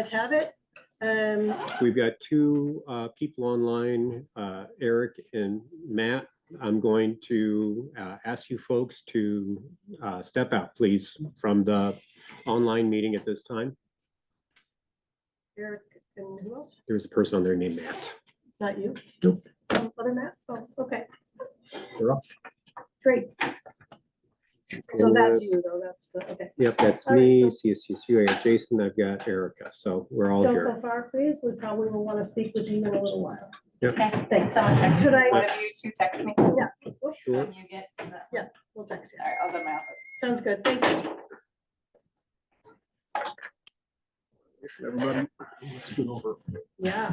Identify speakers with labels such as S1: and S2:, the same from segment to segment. S1: guys have it. Um,
S2: We've got two uh, people online, uh, Eric and Matt. I'm going to uh, ask you folks to uh, step out, please, from the online meeting at this time.
S1: Eric and who else?
S2: There's a person on there named Matt.
S1: Not you?
S2: Nope.
S1: Um, Other Matt? Oh, okay,
S2: They're off.
S1: great. So that's you though, that's the, okay.
S2: Yep, that's
S1: All right,
S2: me,
S1: so-
S2: CSU, Jason, I've got Erica, so we're all
S1: Don't
S2: here.
S1: go far, please. We probably will want to speak with you in a little while.
S3: Okay,
S1: Thanks.
S3: someone text,
S1: Should I?
S3: one of you two text me?
S1: Yeah, we'll-
S2: Sure.
S3: When you get to the,
S1: we'll text you.
S3: all right, I'll go to my office.
S1: Sounds good. Thank you.
S4: Everybody, let's get over.
S1: Yeah.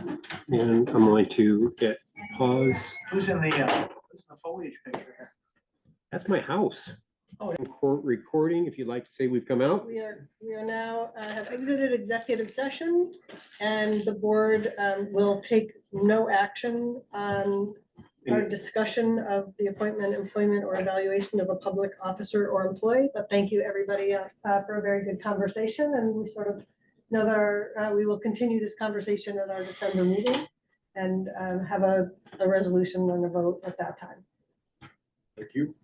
S2: And I'm going to hit pause.
S4: Who's in the, uh, who's in the foliage picture here?
S2: That's my house.
S4: Oh, yeah.
S2: Record- Recording, if you'd like to say we've come out.
S1: We are, we are now, uh, have exited executive session and the board um, will take no action on our
S2: Any-
S1: discussion of the appointment, employment, or evaluation of a public officer or employee. But thank you, everybody, uh, uh, for a very good conversation, and we sort of know that our, uh, we will continue this conversation at our December meeting and um, have a, a resolution and a vote at that time.
S4: Thank you.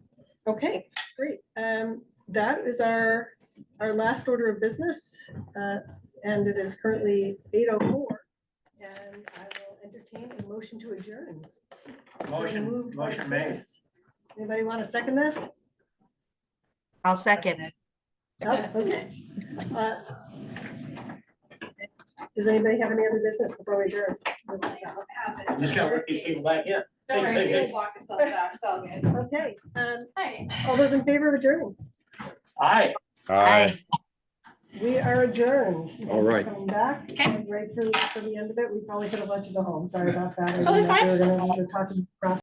S1: Okay, great. Um, that is our, our last order of business, uh, and it is currently eight oh four. And I will entertain a motion to adjourn. So
S4: Motion,
S1: moved by
S4: motion made.
S1: Chris. Anybody want to second that?
S5: I'll second.
S1: No? Oh, Okay. Uh, Does anybody have any other business before we adjourn?
S4: You Just gotta bring these people back in.
S3: Don't worry,
S4: Hey, hey,
S3: you
S4: hey.
S3: just walked yourself down, it's all good.
S1: Okay, um,
S3: Hi.
S1: all those in favor of adjourn?
S4: Aye.
S5: Aye.
S1: We are adjourned.
S2: All right.
S1: Coming back,
S3: Okay.
S1: and right through, for the end of it, we probably could have let you go home, sorry about that. I
S3: Totally
S1: didn't know if we
S3: fine.
S1: were gonna have to talk to Ross